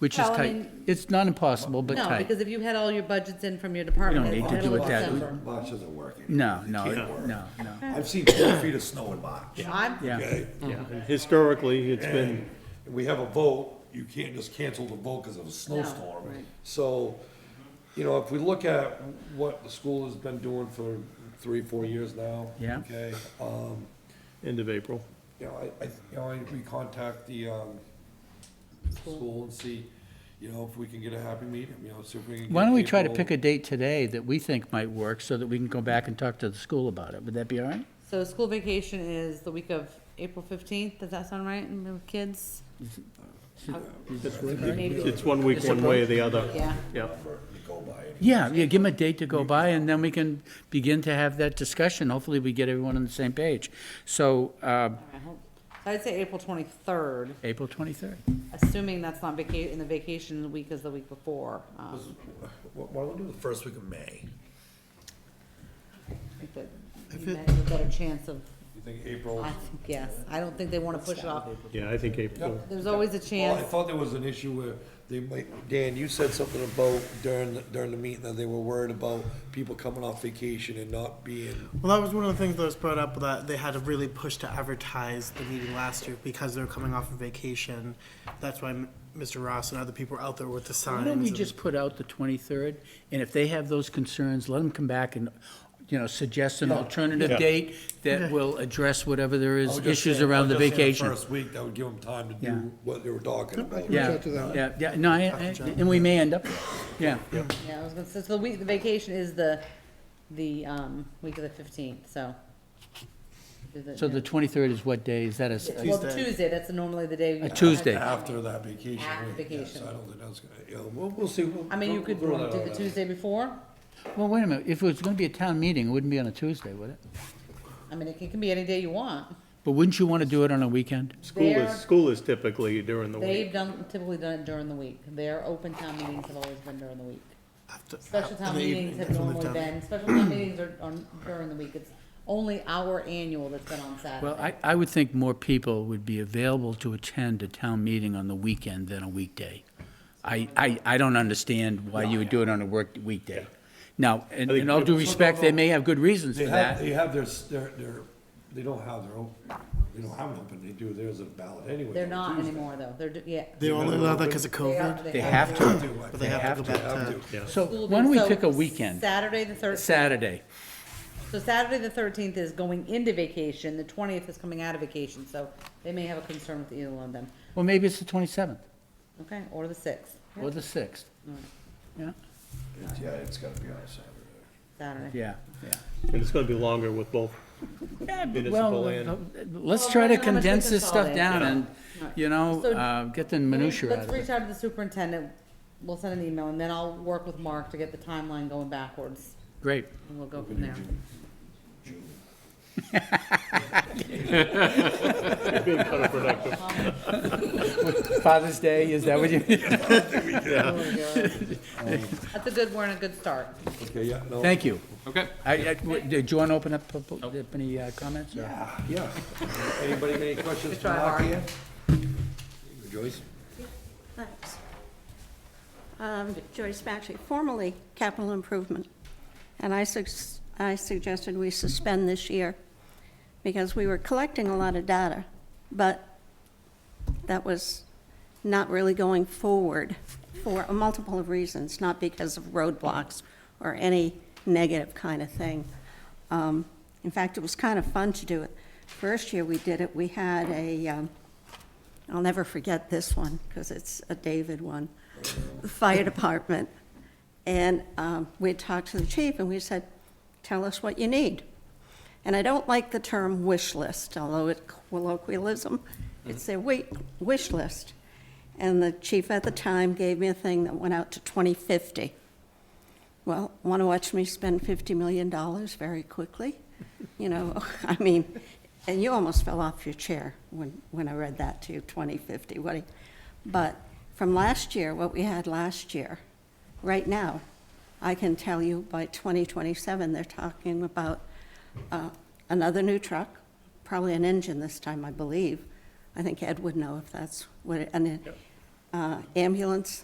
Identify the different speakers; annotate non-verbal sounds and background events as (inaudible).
Speaker 1: which is
Speaker 2: Well, I
Speaker 1: tight.
Speaker 2: mean-
Speaker 1: It's not impossible, but
Speaker 2: No,
Speaker 1: tight.
Speaker 2: because if you had all your budgets in from your department.
Speaker 1: need
Speaker 2: heads,
Speaker 1: to do
Speaker 2: by
Speaker 1: it
Speaker 2: middle of
Speaker 1: that-
Speaker 2: December-
Speaker 3: March isn't working.
Speaker 1: No,
Speaker 3: It
Speaker 1: no,
Speaker 3: can't
Speaker 1: it-
Speaker 3: work.
Speaker 1: no, no,
Speaker 3: I've seen four feet of snow in March.
Speaker 2: I'm-
Speaker 1: yeah.
Speaker 3: Okay?
Speaker 4: Historically, it's been,
Speaker 3: And we have a vote, you can't just cancel the vote because of a
Speaker 2: No,
Speaker 3: snowstorm.
Speaker 2: right.
Speaker 3: So, you know, if we look at what the school has been doing for three, four years now.
Speaker 1: Yeah.
Speaker 3: Okay, um,
Speaker 4: end of April.
Speaker 3: you know, I, I, you know, I, we contact the, um, school and see, you know, if we can get a happy medium, you know, see if we can.
Speaker 1: Why
Speaker 3: get
Speaker 1: don't we try to
Speaker 3: people-
Speaker 1: pick a date today that we think might work so that we can go back and talk to the school about it? Would that be all right?
Speaker 2: So school vacation is the week of April fifteenth, does that sound right, and the kids? Maybe,
Speaker 4: It's one week, one way or the other.
Speaker 2: yeah,
Speaker 4: Yeah.
Speaker 1: Yeah, yeah, give them a date to go by and then we can begin to have that discussion. Hopefully we get everyone on the same page. So, uh,
Speaker 2: I hope, so I'd say April twenty-third,
Speaker 1: April 23rd.
Speaker 2: assuming that's not vaca, in the vacation week is the week before. um,
Speaker 3: Why why don't we do the first week of May?
Speaker 2: I think that You might have a better chance of,
Speaker 3: You think April?
Speaker 2: I think, yes, I don't think they wanna push it off,
Speaker 4: Yeah, I think April.
Speaker 2: there's always a
Speaker 3: Well, I
Speaker 2: chance,
Speaker 3: thought there was an issue where they might, Dan, you said something about during, the- during the meeting that they were worried about people coming off vacation and not being.
Speaker 5: Well, that was one of the things that was brought up that they had to really push to advertise the meeting last year because they were coming off of vacation. That's why M- Mr. Ross and other people were out there with the signs.
Speaker 1: Why don't we
Speaker 5: and-
Speaker 1: just put out the 23rd, and if they have those concerns, let them come back and, you know, suggest an alternative
Speaker 4: Yeah.
Speaker 1: date that will address whatever there
Speaker 3: I
Speaker 1: is,
Speaker 3: was just
Speaker 1: issues
Speaker 3: saying- I
Speaker 1: around
Speaker 3: was
Speaker 1: the
Speaker 3: just saying
Speaker 1: vacation.
Speaker 3: First week, that would give them time to
Speaker 1: Yeah.
Speaker 3: do what they were talking about.
Speaker 1: Yeah,
Speaker 6: out to them.
Speaker 1: yeah, yeah, no, I- I- and we may end up, yeah.
Speaker 2: yeah, I was gonna say, so the week, the vacation is the, the, um, week of the fifteenth, so. do
Speaker 1: So the 23rd is what day? Is that a s- a,
Speaker 2: Well, Tuesday, that's normally the day.
Speaker 1: a Tuesday?
Speaker 3: After that vacation
Speaker 2: After
Speaker 3: week, yes,
Speaker 2: vacation.
Speaker 3: I don't think that's gonna, you know, we'll, we'll see. We'll-
Speaker 2: I mean, you
Speaker 3: we'll
Speaker 2: could do
Speaker 3: throw that
Speaker 2: it
Speaker 3: out
Speaker 2: the
Speaker 3: there.
Speaker 2: Tuesday before,
Speaker 1: Well, wait a minute, if it was gonna be a town meeting, it wouldn't be on a Tuesday, would it?
Speaker 2: I mean, it can- can be any day you want.
Speaker 1: But wouldn't you wanna do it on a weekend?
Speaker 4: School
Speaker 2: There-
Speaker 4: is, school is typically during the week.
Speaker 2: They've done, typically done it during the week, their open town meetings have always been during the week.
Speaker 5: After-
Speaker 2: Special
Speaker 5: in
Speaker 2: town
Speaker 5: the
Speaker 2: meetings
Speaker 5: evening,
Speaker 2: have
Speaker 5: that's when they've
Speaker 2: normally
Speaker 5: done it.
Speaker 2: been, special town meetings are on, during the week, it's only our annual that's been on
Speaker 1: Well,
Speaker 2: Saturday.
Speaker 1: I, I would think more people would be available to attend a town meeting on the weekend than a weekday. I, I, I don't understand why you would do it on a work weekday. Now, in in all due respect, they may have good reasons
Speaker 3: They
Speaker 1: for
Speaker 3: have,
Speaker 1: that.
Speaker 3: they have their, s- their, their, they don't have their own, they don't have an open, they do theirs a ballot anyway.
Speaker 2: They're
Speaker 3: on
Speaker 2: not
Speaker 3: Tuesday.
Speaker 2: anymore though, they're, do- yeah.
Speaker 5: They only allowed that because of COVID.
Speaker 1: They have to,
Speaker 3: Do, I
Speaker 5: But
Speaker 3: think.
Speaker 5: they have to go
Speaker 3: They
Speaker 5: back
Speaker 3: have
Speaker 5: to,
Speaker 3: to.
Speaker 1: so
Speaker 2: School
Speaker 1: why don't we
Speaker 2: days. So
Speaker 1: pick a weekend,
Speaker 2: Saturday the thirteenth,
Speaker 1: Saturday?
Speaker 2: so Saturday the thirteenth is going into vacation, the twentieth is coming out of vacation, so they may have a concern with either one of them,
Speaker 1: Well, maybe it's the twenty-seventh
Speaker 2: okay, or the sixth,
Speaker 1: or the sixth. Yeah,
Speaker 3: It's- Yeah, it's gotta be on Saturday.
Speaker 2: Saturday.
Speaker 1: yeah, yeah.
Speaker 4: And it's gonna be longer with both. Municipal
Speaker 1: Well,
Speaker 4: and-
Speaker 1: uh, let's
Speaker 2: Well,
Speaker 1: try to
Speaker 2: depends on how much
Speaker 1: condense
Speaker 2: they
Speaker 1: this stuff down and,
Speaker 2: consolidate. Yeah.
Speaker 1: you know,
Speaker 2: So-
Speaker 1: uh, get the minutia out
Speaker 2: Let's
Speaker 1: of it.
Speaker 2: reach out to the superintendent, we'll send an email, and then I'll work with Mark to get the timeline going backwards,
Speaker 1: Great.
Speaker 2: and we'll go from there.
Speaker 4: Being counterproductive.
Speaker 1: Father's Day, is that what (laughs) you?
Speaker 2: That's a good, we're in a good start.
Speaker 3: Okay, yeah, no.
Speaker 1: Thank you.
Speaker 7: Okay.
Speaker 1: I, I- w- did you want to open up, pub- up any uh, comments? or-
Speaker 3: Yeah. Anybody got any questions for
Speaker 2: try
Speaker 3: Mark
Speaker 2: hard.
Speaker 3: here? Joyce?
Speaker 8: Thanks. Um, Joyce Maxey, formerly capital improvement. And I sus- I suggested we suspend this year because we were collecting a lot of data, but that was not really going forward for a multiple of reasons, not because of roadblocks or any negative kind of thing. Um, In fact, it was kind of fun to do it. First year we did it, we had a, um, I'll never forget this one, because it's a David one, the fire department. And um, we talked to the chief, and we said, tell us what you need. And I don't like the term wish list, although it colloquialism, it's a wait, wish list. And the chief at the time gave me a thing that went out to 2050. Well, want to watch me spend $50 million very quickly? You know, (laughs) I mean, and you almost fell off your chair when, when I read that to you, 2050, what do you- But from last year, what we had last year, right now, I can tell you by 2027, they're talking about uh, another new truck, probably an engine this time, I believe. I think Ed would know if that's what, it- and it- uh, ambulance